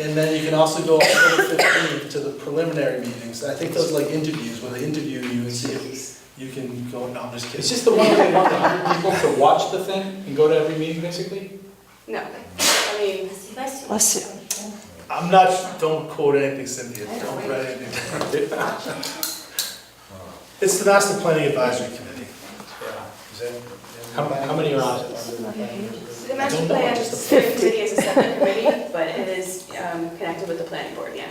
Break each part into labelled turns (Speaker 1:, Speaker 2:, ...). Speaker 1: And then you can also go on the fifteenth to the preliminary meetings. I think those are like interviews, where they interview you and see if you can go, no, I'm just
Speaker 2: It's
Speaker 1: kidding.
Speaker 2: just the one where they want the hundred people to watch the thing and go to every meeting, basically?
Speaker 3: No, I mean,
Speaker 4: Bless you.
Speaker 1: I'm not, don't quote anything Cynthia, don't write anything. It's the master planning advisory committee.
Speaker 2: How, how many are on it?
Speaker 3: the master
Speaker 2: don't know,
Speaker 3: plan
Speaker 2: just the-
Speaker 3: steering committee is a separate committee, but it is um, connected with the planning board, yeah.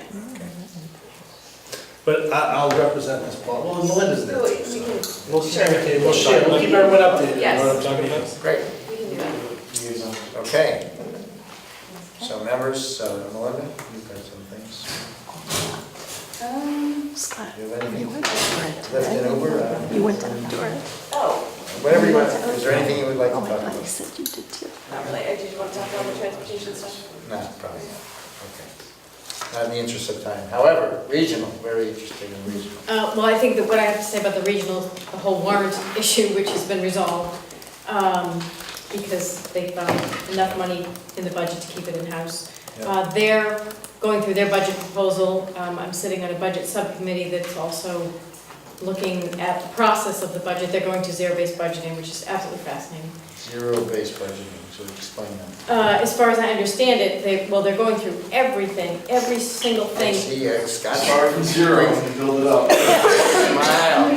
Speaker 1: But I, I'll represent this, Paul. Well, Melinda's there.
Speaker 3: So we- we
Speaker 1: too,
Speaker 3: can,
Speaker 1: so. We'll share, we'll share, we'll keep everyone updated.
Speaker 2: You know what I'm
Speaker 3: yes,
Speaker 2: talking about?
Speaker 5: Great,
Speaker 3: we can do that.
Speaker 5: okay. So members, uh, Melinda, you've got some things.
Speaker 3: Um,
Speaker 4: Scott,
Speaker 5: Do you have
Speaker 4: you
Speaker 5: anything
Speaker 4: went to
Speaker 5: left in over? Uh,
Speaker 4: You went down to it.
Speaker 3: oh,
Speaker 5: Whatever you want, is there anything you would like to
Speaker 4: Oh,
Speaker 5: talk
Speaker 4: my God, you
Speaker 5: about?
Speaker 4: said you did too.
Speaker 3: not really, Uh, did you want to talk about the transportation stuff?
Speaker 5: No, probably not, okay. Not in the interest of time. However, regional, very interesting in regional.
Speaker 6: Uh, Well, I think that what I have to say about the regional, the whole warrant issue, which has been resolved, um, because they found enough money in the budget to keep it in-house.
Speaker 5: Yeah.
Speaker 6: Uh, They're going through their budget proposal. Um, I'm sitting on a budget subcommittee that's also looking at the process of the budget. They're going to zero-based budgeting, which is absolutely fascinating.
Speaker 5: Zero-based budgeting, so explain that.
Speaker 6: Uh, As far as I understand it, they, well, they're going through everything, every single
Speaker 5: I
Speaker 6: thing.
Speaker 5: see, uh, Scott
Speaker 1: Start from zero and build it up.
Speaker 5: Wow.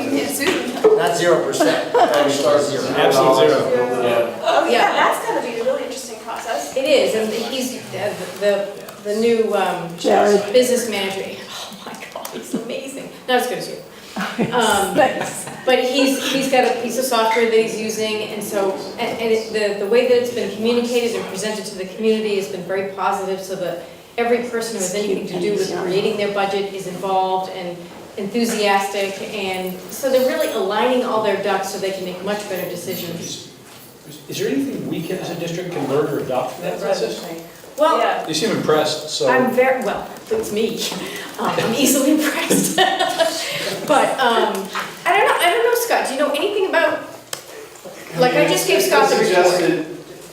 Speaker 5: Not zero percent, I'm sorry, zero.
Speaker 2: Absolute zero.
Speaker 3: Yeah. Oh, yeah,
Speaker 6: Yeah.
Speaker 3: that's gonna be a really interesting process.
Speaker 6: It is, and he's, uh, the, the new um,
Speaker 4: Jared.
Speaker 6: business manager, oh my God, he's amazing, not as good as you. Um,
Speaker 4: Thanks.
Speaker 6: But he's, he's got a piece of software that he's using, and so, and, and it- the, the way that it's been communicated and presented to the community has been very positive, so that every person who has anything to do with creating their budget is involved and enthusiastic, and so they're really aligning all their ducks so they can make much better decisions.
Speaker 2: Is is there anything we can, as a district, can learn or adopt from that process?
Speaker 6: Well,
Speaker 3: Yeah.
Speaker 2: You seem impressed, so.
Speaker 6: I'm very, well, it's me. Um, I'm easily impressed. But, um, I don't know, I don't know, Scott, do you know anything about, like, I just gave Scott the
Speaker 7: It's
Speaker 6: report.
Speaker 7: Suggested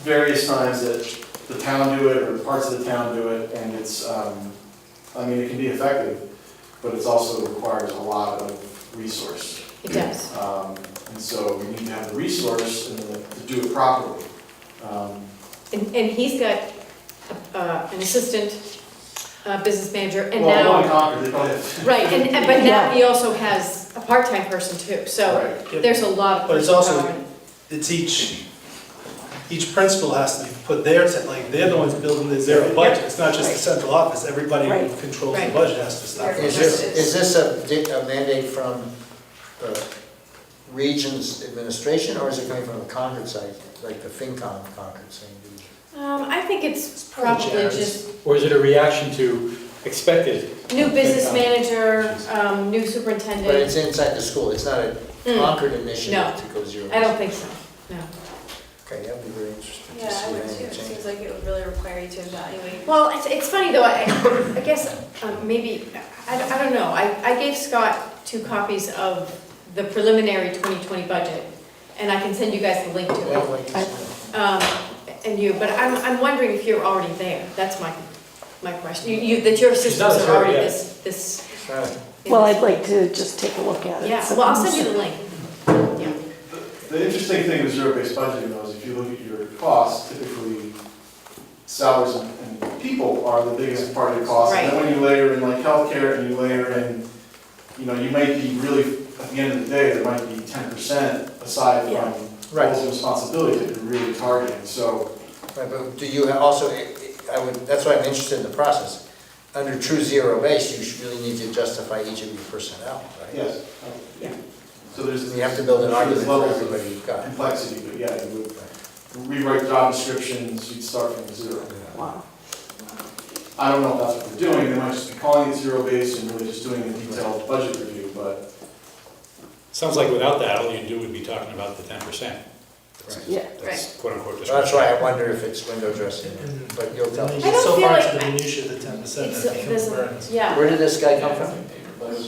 Speaker 7: various times that the town do it, or parts of the town do it, and it's, um, I mean, it can be effective, but it's also requires a lot of resource.
Speaker 6: It does.
Speaker 7: Um, and so we need to have the resource and the- to do it properly. Um,
Speaker 6: And, and he's got, uh, an assistant, uh, business manager, and
Speaker 7: Well, I'm
Speaker 6: now,
Speaker 7: not conquered, they probably have.
Speaker 6: right, and, and- but now he also has a part-time person too, so
Speaker 7: Right.
Speaker 6: there's a lot of.
Speaker 1: But it's also-
Speaker 6: person power.
Speaker 1: It's each, each principal has to put their, te- like, they're the ones building the zero budget. It's not just the central office, everybody who
Speaker 4: Right.
Speaker 1: controls the
Speaker 6: Right.
Speaker 1: budget has to stop.
Speaker 5: Is this, is this a di- a mandate from the region's administration, or is it coming from the Concord side, like the FinCom of Concord saying?
Speaker 6: Um, I think it's probably
Speaker 1: Jared's.
Speaker 6: just
Speaker 2: Or is it a reaction to expected?
Speaker 6: new business manager, um, new superintendent.
Speaker 5: But it's inside the school, it's not a
Speaker 3: Mm.
Speaker 5: Concord
Speaker 6: No.
Speaker 5: initiative to go zero.
Speaker 6: I don't think so, no.
Speaker 5: Okay, that'd be very interesting
Speaker 3: Yeah,
Speaker 5: to
Speaker 3: I
Speaker 5: see
Speaker 3: would
Speaker 5: if
Speaker 3: too,
Speaker 5: any
Speaker 3: it seems
Speaker 5: change.
Speaker 3: like it would really require you to evaluate.
Speaker 6: Well, it's, it's funny though, I, I guess, um, maybe, I, I don't know, I, I gave Scott two copies of the preliminary 2020 budget, and I can send you guys the link
Speaker 5: I'd
Speaker 6: to
Speaker 5: like to
Speaker 4: I-
Speaker 5: see
Speaker 6: it, um, and you, but I'm, I'm wondering if you're already there, that's my, my question, you, you, that your systems
Speaker 2: not
Speaker 6: are already
Speaker 2: there yet.
Speaker 6: this, this.
Speaker 5: that. Right.
Speaker 6: in
Speaker 4: Well,
Speaker 6: this-
Speaker 4: I'd like to just take a look at it.
Speaker 6: Yeah, well, I'll send you the link, yeah.
Speaker 7: The- The interesting thing with zero-based budgeting though is if you look at your costs, typically salaries and and people are the biggest part of your cost. And then when you layer in like healthcare and you layer in, you know, you might be really, at the end of the day, there might be ten percent aside
Speaker 4: Yeah.
Speaker 7: from
Speaker 5: Right.
Speaker 7: roles and responsibilities that you're really targeting. So
Speaker 5: Right, but do you ha- also, I would, that's why I'm interested in the process. Under true zero base, you should really need to justify each of your personnel, right?
Speaker 7: Yes.
Speaker 6: Yeah.
Speaker 7: So there's.
Speaker 5: You have to build an argument for
Speaker 7: levels of
Speaker 5: everybody you've got.
Speaker 7: Complexity, but yeah, you would rewrite job descriptions, you'd start from zero.
Speaker 4: Wow.
Speaker 7: I don't know if that's what they're doing, they might just be calling it zero-based and really just doing a detailed budget review, but
Speaker 2: Sounds like without that, all you'd do would be talking about the ten percent.
Speaker 4: Yeah.
Speaker 2: That's quote unquote.
Speaker 5: That's why I wonder if it's window dressing, but you'll tell
Speaker 1: You
Speaker 5: me.
Speaker 1: get
Speaker 6: don't
Speaker 1: so
Speaker 6: feel
Speaker 1: far
Speaker 6: like-
Speaker 1: into the minutia of the ten percent
Speaker 6: It's,
Speaker 1: that it
Speaker 6: there's,
Speaker 1: can
Speaker 6: a-
Speaker 1: burn.
Speaker 6: yeah.
Speaker 5: Where did this guy come from? Was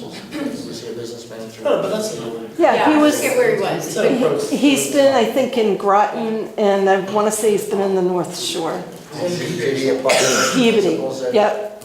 Speaker 5: he a business manager?
Speaker 1: No, Oh, but that's,
Speaker 4: Yeah, he
Speaker 6: I
Speaker 4: was,
Speaker 6: forget where he was,
Speaker 1: it's
Speaker 6: but
Speaker 1: an
Speaker 6: he-
Speaker 1: approach.
Speaker 4: he's been, I think, in Groton, and I want to say he's been in the North Shore.
Speaker 5: Did he apply?
Speaker 4: Peabody, yep.